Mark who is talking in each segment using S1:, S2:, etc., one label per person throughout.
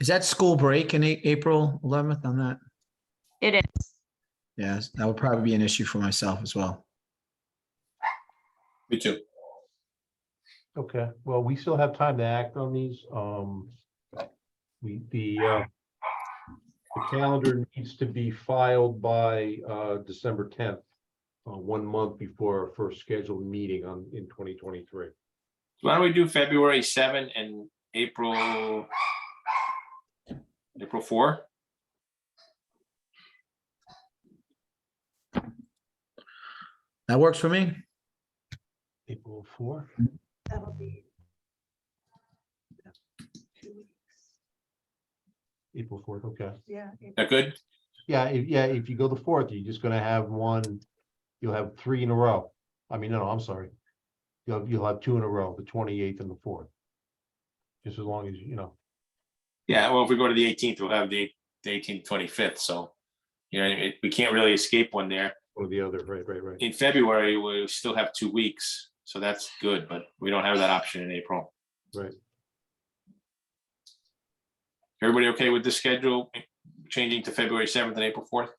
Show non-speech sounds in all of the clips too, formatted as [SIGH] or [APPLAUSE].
S1: Is that school break in A- April 11th on that?
S2: It is.
S1: Yes, that would probably be an issue for myself as well.
S3: Me too.
S4: Okay, well, we still have time to act on these. Um, we, the, uh, the calendar needs to be filed by, uh, December tenth, uh, one month before our first scheduled meeting on, in twenty twenty-three.
S3: Why don't we do February seven and April? April four?
S1: That works for me. [LAUGHS]
S4: April four?
S5: That'll be.
S4: April fourth, okay.
S5: Yeah.
S3: That good?
S4: Yeah, if, yeah, if you go the fourth, you're just gonna have one, you'll have three in a row. I mean, no, no, I'm sorry. You'll, have- you'll have two in a row, the twenty-eighth and the fourth. Just as long as, you know,
S3: Yeah, well, if we go to the eighteenth, we'll have the eighteenth, twenty-fifth, so. You know, it- we can't really escape one there.
S4: or the other, right, right, right.
S3: In February, we still have two weeks, so that's good, but we don't have that option in April.
S4: Right.
S3: Everybody okay with the schedule changing to February seventh and April fourth?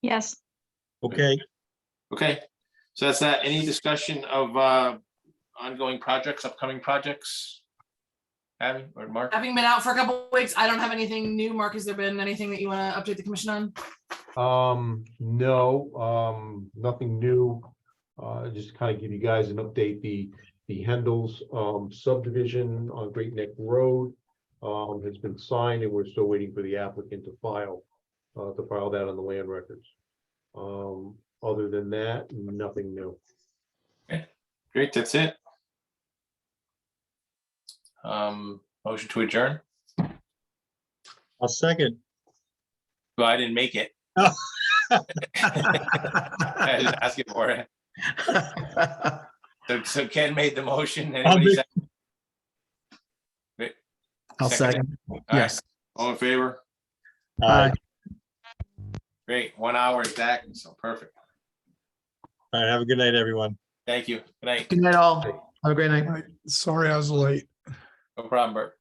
S2: Yes.
S6: Okay,
S3: Okay, so that's that. Any discussion of uh ongoing projects, upcoming projects? Abby or Mark?
S7: Having been out for a couple of weeks, I don't have anything new. Mark, has there been anything that you want to update the commission on?
S4: Um, no, um, nothing new. Uh, just to kind of give you guys an update, the, the Hendel's um subdivision on Great Neck Road um, has been signed and we're still waiting for the applicant to file, uh, to file that on the land records. Um, other than that, nothing new.
S3: Great, that's it. Um, motion to adjourn?
S6: I'll second.
S3: Well, I didn't make it. [LAUGHS] I didn't ask it for it. So- So Ken made the motion. Anybody
S6: make-
S3: second?
S1: I'll
S3: Second.
S1: second.
S3: All right,
S1: Yes.
S3: All in favor?
S6: Uh,
S3: Great, one hour exactly, so perfect.
S6: All right, have a good night, everyone.
S3: Thank you. Good night.
S1: Good night all. Have a great night.
S8: Sorry I was late.
S3: No problem, Bert.